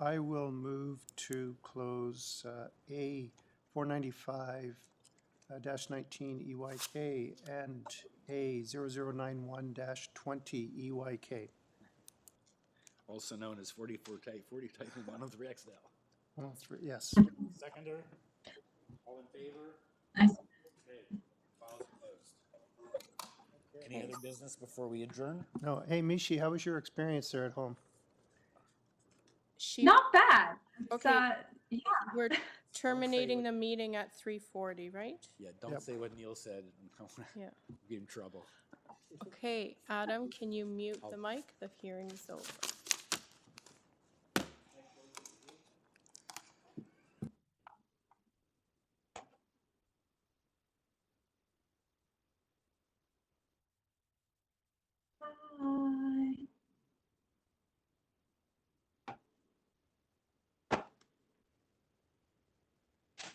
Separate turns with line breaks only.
I will move to close uh, A uh, 495-19 EYK E and A 0091-20 EYK.
also known as 44 type, 40 type 103 XL.
All three- Yes.
Seconder? All in favor?
Aye.
Okay, files are closed. Any other business before we adjourn?
No, hey, Mishi, how was your experience there at home?
She,
Not bad. It's,
Okay.
uh, yeah,
we're terminating
what-
the meeting at three forty, right?
Yeah, don't
Yep.
say what Neil said. and don't wanna
Yeah.
Be in trouble.
Okay, Adam, can you mute
I'll-
the mic? The hearing's over.